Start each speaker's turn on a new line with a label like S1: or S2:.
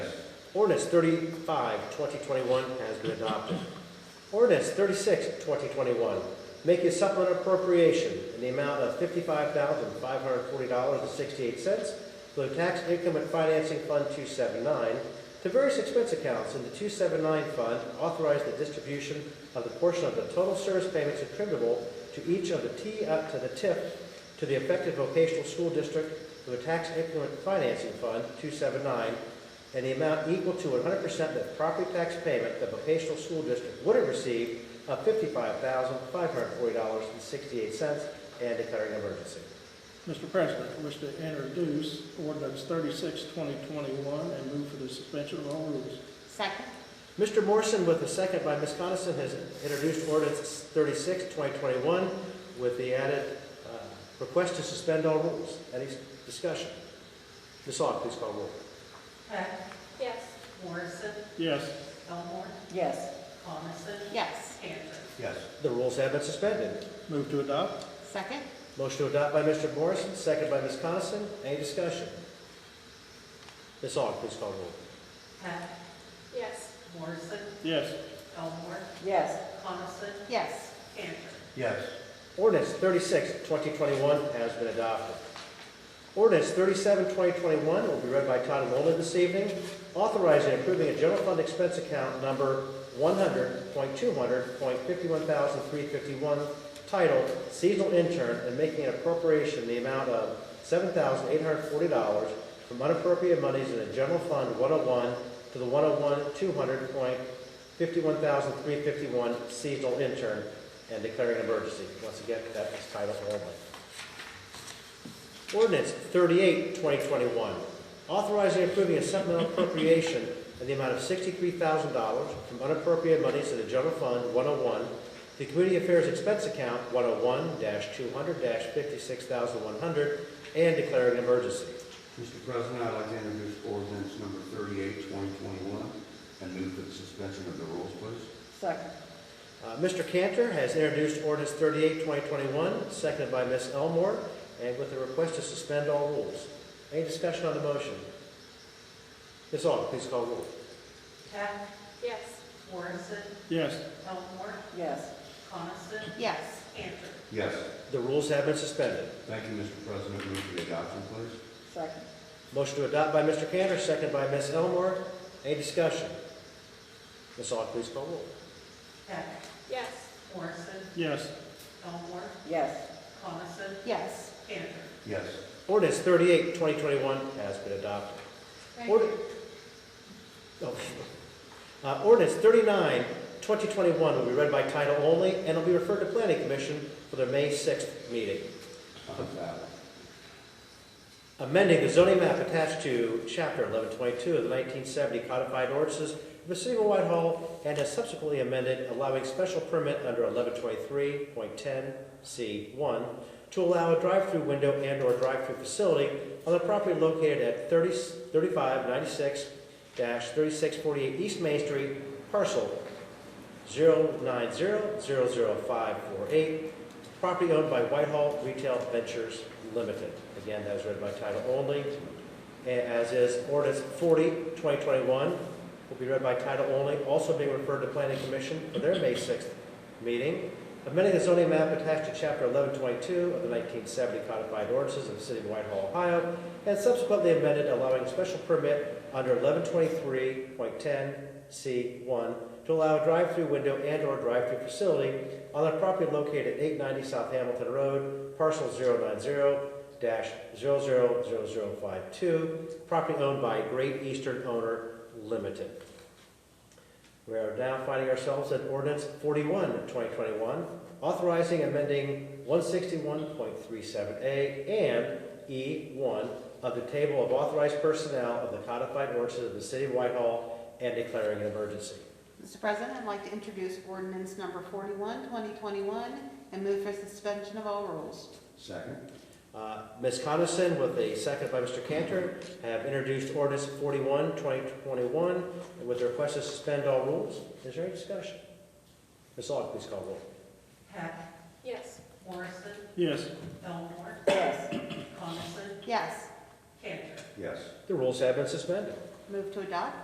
S1: Ordinance 35, 2021 has been adopted. Ordinance 36, 2021, making a supplemental appropriation in the amount of $55,540.68 for the tax income and financing fund 279 to various expense accounts in the 279 fund, authorize the distribution of the portion of the total service payments attributable to each of the T, uh, to the TIP to the affected vocational school district for the tax income and financing fund 279 and the amount equal to 100% of the property tax payment the vocational school district would have received of $55,540.68 and declaring emergency.
S2: Mr. President, I wish to introduce ordinance 36, 2021, and move for the suspension of all rules.
S3: Second.
S1: Mr. Morrison, with a second by Ms. Coniston, has introduced ordinance 36, 2021, with the added uh, request to suspend all rules. Any discussion? Ms. Aug, please call roll.
S4: Heck,
S3: Yes.
S4: Morrison,
S2: Yes.
S4: Elmore,
S5: yes,
S4: Coniston.
S3: Yes.
S4: Cantor.
S6: yes,
S1: The rules have been suspended.
S2: Move to adopt?
S3: Second.
S1: Motion to adopt by Mr. Morrison, second by Ms. Coniston. Any discussion? Ms. Aug, please call roll.
S4: Heck,
S3: Yes.
S4: Morrison,
S2: Yes.
S4: Elmore,
S5: yes,
S4: Coniston,
S3: Yes.
S4: Cantor.
S6: yes,
S1: Ordinance 36, 2021 has been adopted. Ordinance 37, 2021 will be read by title only this evening, authorizing and approving a general fund expense account number 100.200.51,351 titled Seasonal Intern and making an appropriation in the amount of $7,840 from unappropriated monies in the General Fund 101 to the 101-200.51,351 seasonal intern and declaring an emergency. Once again, that is title only. Ordinance 38, 2021, authorizing and approving a supplemental appropriation in the amount of $63,000 from unappropriated monies in the General Fund 101, the Community Affairs Expense Account 101-200-56100, and declaring an emergency.
S6: Mr. President, I'd like to introduce ordinance number 38, 2021, and move for the suspension of the rules, please.
S5: second,
S1: Uh, Mr. Cantor has introduced ordinance 38, 2021, seconded by Ms. Elmore, and with the request to suspend all rules. Any discussion on the motion? Ms. Aug, please call roll.
S4: Heck,
S3: Yes.
S4: Morrison,
S2: Yes.
S4: Elmore,
S5: yes,
S4: Coniston,
S3: Yes.
S4: Cantor.
S6: Yes,
S1: The rules have been suspended.
S6: thank you, Mr. President, move for the adoption, please.
S5: second,
S1: Motion to adopt by Mr. Cantor, second by Ms. Elmore. Any discussion? Ms. Aug, please call roll.
S4: Heck,
S3: Yes.
S4: Morrison,
S2: Yes.
S4: Elmore,
S5: yes,
S4: Coniston,
S3: Yes.
S4: Cantor.
S6: Yes,
S1: Ordinance 38, 2021 has been adopted. Ord- Oh. Uh, Ordinance 39, 2021 will be read by title only and will be referred to Planning Commission for their May 6th meeting.
S6: on the ballot.
S1: amending the zoning map attached to Chapter 1122 of the 1970 codified ordinances of the City of Whitehall and has subsequently amended allowing special permit under 1123.10C1 to allow a drive-through window and/or drive-through facility on the property located at 30 3596-3648 East Main Street, parcel 090000548, property owned by Whitehall Retail Ventures Limited. Again, that is read by title only, A- as is ordinance 40, 2021, will be read by title only, also being referred to Planning Commission for their May 6th meeting. Amending the zoning map attached to Chapter 1122 of the 1970 codified ordinances of the City of Whitehall, Ohio, and subsequently amended allowing special permit under 1123.10C1 to allow a drive-through window and/or drive-through facility on the property located at 890 South Hamilton Road, parcel 090-000052, property owned by Great Eastern Owner Limited. We are now finding ourselves at ordinance 41, 2021, authorizing amending 161.37A and E1 of the table of authorized personnel of the codified ordinances of the City of Whitehall and declaring an emergency.
S7: Mr. President, I'd like to introduce ordinance number 41, 2021, and move for suspension of all rules.
S6: Second,
S1: Uh, Ms. Coniston, with a second by Mr. Cantor, have introduced ordinance 41, 2021, with the request to suspend all rules. Is there any discussion? Ms. Aug, please call roll.
S4: Heck,
S3: Yes.
S4: Morrison,
S2: Yes.
S4: Elmore,
S5: yes,
S4: Coniston,
S7: Yes.
S4: Cantor.
S6: yes.
S1: The rules have been suspended.
S7: Move to adopt?